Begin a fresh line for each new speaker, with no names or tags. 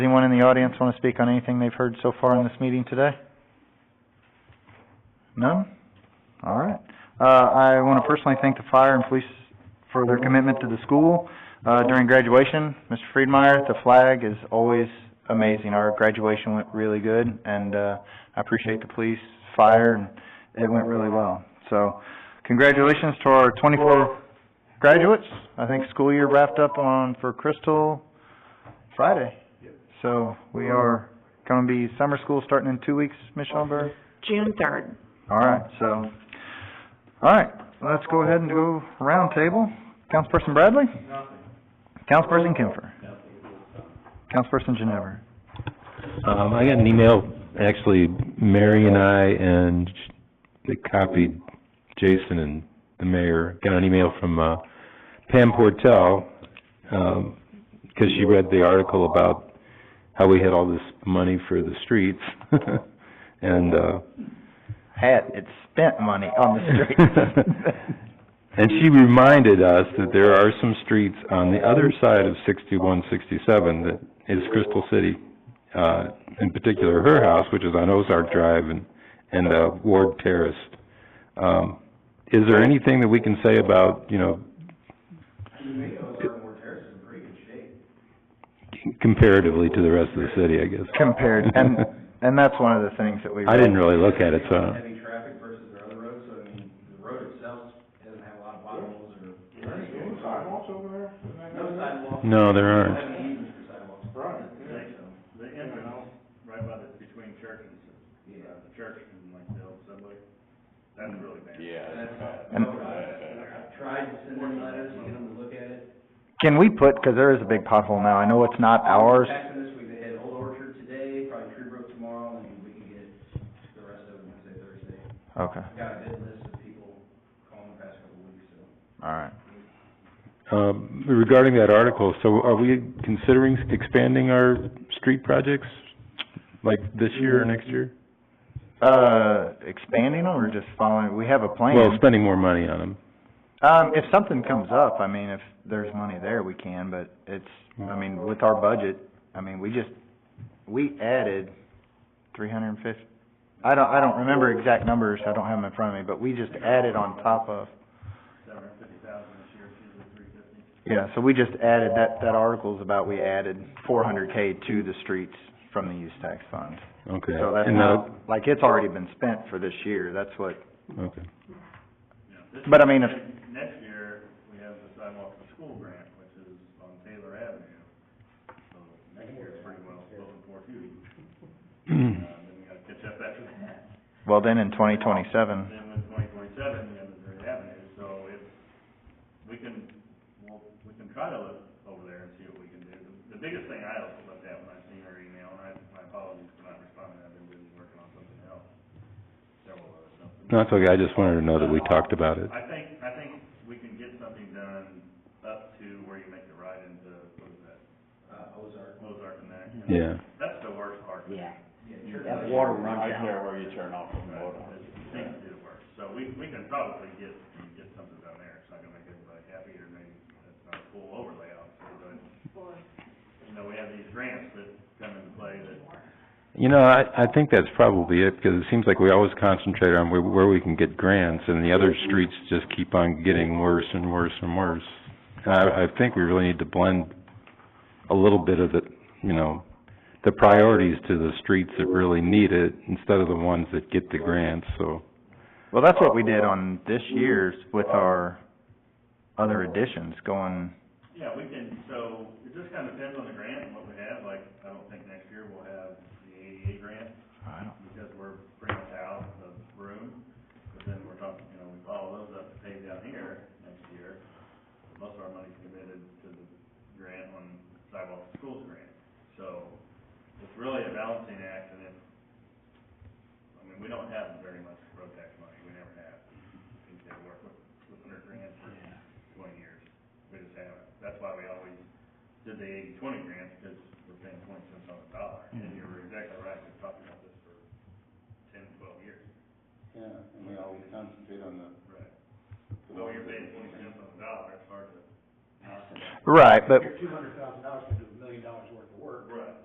anyone in the audience want to speak on anything they've heard so far in this meeting today? None? All right. Uh, I want to personally thank the fire and police for their commitment to the school, uh, during graduation. Mr. Friedmeier, the flag is always amazing. Our graduation went really good, and, uh, I appreciate the police, fire, and it went really well. So, congratulations to our twenty-four graduates. I think school year wrapped up on, for Crystal, Friday. So, we are gonna be summer school starting in two weeks, Ms. Schoenberg?
June third.
All right, so, all right, let's go ahead and go round table. Councilperson Bradley? Nothing. Councilperson Kemfer? Councilperson Ginever?
Um, I got an email, actually, Mary and I, and it copied Jason and the mayor, got an email from, uh, Pam Portell, um, 'cause she read the article about how we had all this money for the streets, and, uh,
Hat, it's spent money on the street.
and she reminded us that there are some streets on the other side of sixty-one, sixty-seven that is Crystal City. Uh, in particular, her house, which is on Ozark Drive and, and, uh, Ward Terrace. Um, is there anything that we can say about, you know? Comparatively to the rest of the city, I guess.
Compared, and, and that's one of the things that we.
I didn't really look at it, so.
heavy traffic versus their other roads, so I mean, the road itself doesn't have a lot of potholes or. sidewalks over there? No sidewalks.
No, there
They don't
aren't.
have any easements for sidewalks. Right.
The in and out, right by the, between church and, uh, the church and like the old subway, that's really bad.
And-
I tried to send them letters, to get them to look at it.
Can we put, because there is a big pothole now, I know it's not ours,
Back from this week, they had Old Orchard today, probably Tree Brook tomorrow, and we can get the rest of them, Wednesday, Thursday.
okay,
I've got a bid list of people calling the past couple of weeks, so.
all right.
Um, regarding that article, so are we considering expanding our street projects, like this year or next year?
Uh, expanding them or just following, we have a plan.
Well, spending more money on them.
Um, if something comes up, I mean, if there's money there, we can, but it's, I mean, with our budget, I mean, we just, we added three hundred and fifty, I don't, I don't remember exact numbers, I don't have them in front of me, but we just added on top of,
Seven hundred fifty thousand this year, two to three fifty.
yeah, so we just added, that, that article's about, we added four hundred K to the streets from the use tax fund.
Okay.
So that's
And
not, like, it's already been spent for this year, that's what,
that'll- Okay.
Yeah, this
But I
year-
mean, if-
Next year, we have the sidewalk for school grant, which is on Taylor Avenue, so next year is pretty well spoken for too. Uh, then we gotta catch up after that.
well, then in twenty twenty-seven,
And then with twenty twenty-seven, we have Missouri Avenue, so if, we can, well, we can try to look over there and see what we can do. The biggest thing I looked at when I seen her email, and I, my apologies for not responding, I've been busy working on something else, several other something.
No, it's okay, I just wanted to know that we talked about it.
I think, I think we can get something done up to where you make the ride into, what is that? Uh, Ozark. Ozark and that.
Yeah.
That's the worst part. Yeah.
That water runs
Things do work, so we, we can probably get, get something down there, it's not gonna make everybody happy, or maybe it's not a full overlay, obviously, but, you know, we have these grants that come into play that,
You know, I, I think that's probably it, because it seems like we always concentrate on where, where we can get grants, and the other streets just keep on getting worse and worse and worse. And I, I think we really need to blend a little bit of the, you know, the priorities to the streets that really need it, instead of the ones that get the grants, so.
Well, that's what we did on this year's with our other additions going,
yeah, we can, so, it just kinda depends on the grant and what we have, like, I don't think next year we'll have the ADA grant,
I don't,
because we're pretty much out of room, but then we're talking, you know, we follow those up to pay down here next year. Most of our money's committed to the grant on sidewalk to schools grant, so it's really a balancing act, and if, I mean, we don't have very much road tax money, we never have. I think they work with, with under grants for twenty years, we just haven't, that's why we always did the eighty-twenty grants, because we're paying twenty cents on the dollar, and you're exactly right, we've talked about this for ten, twelve years. Yeah, and we always concentrate on the. Right. Well, you're paying twenty cents on the dollar, it's hard to.
right, but,
You're two hundred